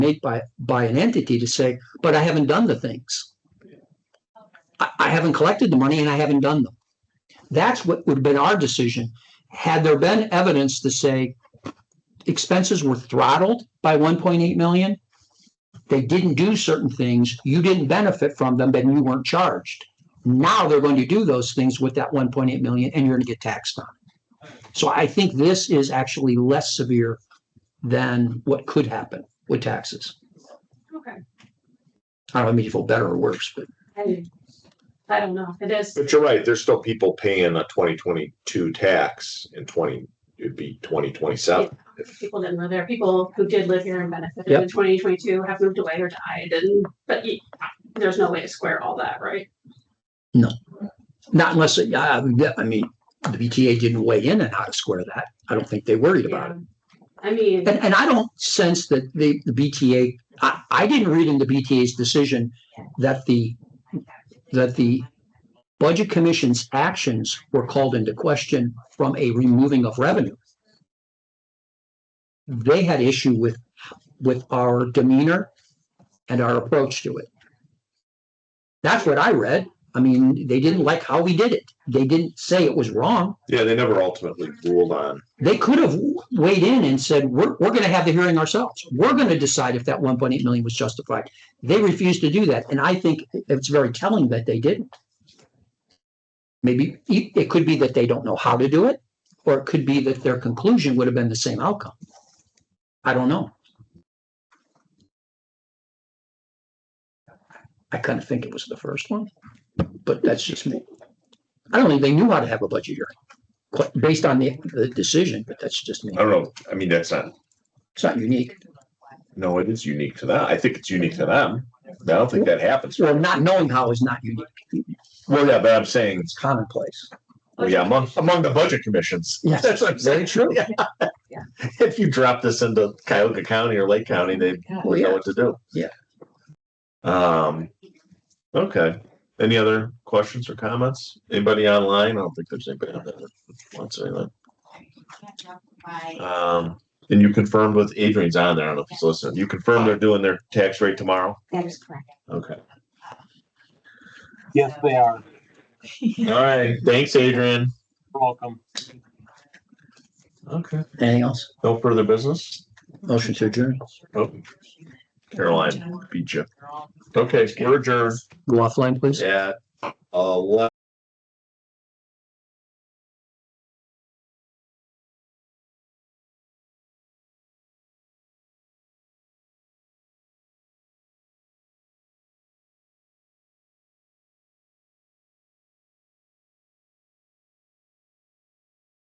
made by, by an entity to say, but I haven't done the things. I, I haven't collected the money and I haven't done them. That's what would have been our decision. Had there been evidence to say expenses were throttled by one point eight million, they didn't do certain things, you didn't benefit from them, then you weren't charged. Now they're going to do those things with that one point eight million and you're going to get taxed on it. So I think this is actually less severe than what could happen with taxes. Okay, I don't know, I mean, if it's better or worse, but I, I don't know, it is, But you're right, there's still people paying a twenty twenty-two tax in twenty, it'd be twenty twenty-seven. people didn't live there, people who did live here and benefited Yep. in twenty twenty-two have moved away or died, and, but you- there's no way to square all that, right? not unless, it- I I mean, the BTA didn't weigh in on how to square that. I don't think they worried about it. Yeah. I mean, And, and I don't sense that the, the BTA, I, I didn't read in the BTA's decision that the, that the Budget Commission's actions were called into question from a removing of revenue. They had issue with, with our demeanor and our approach to it. That's what I read. I mean, they didn't like how we did it. They didn't say it was wrong Yeah, they never ultimately ruled on, they could have weighed in and said, we're, we're going to have the hearing ourselves. We're going to decide if that one point eight million was justified. They refused to do that. And I think it's very telling that they didn't. Maybe it it could be that they don't know how to do it, or it could be that their conclusion would have been the same outcome. I don't know. I kind of think it was the first one, but that's just me. I don't think they knew how to have a budget hearing quite- based on the, the decision, but that's just me. I don't know, I mean, that's not, It's not unique. no, it is unique to them. I think it's unique to them. I don't think that happens. Well, not knowing how is not unique. Well, yeah, but I'm saying, It's commonplace. Oh, well, yeah, among, among the budget commissions. Yes. That's what I'm Very saying. true. Yeah. Yeah. If you drop this into Cuyahoga County or Lake County, they Well, would know yeah. what to do. Yeah. Um, okay. Any other questions or comments? Anybody online? I don't think there's anybody on there that wants anything. Um, and you confirmed with Adrian's on there. I don't know if he's listening. You confirmed they're doing their tax rate tomorrow? That is correct. Okay. Yes, they are. All right. Thanks, Adrian. You're Welcome. Okay. Anything else? No further business? Motion to adjourn. Oh, Caroline beat you. Okay, we're adjourned Go offline, please. at eleven.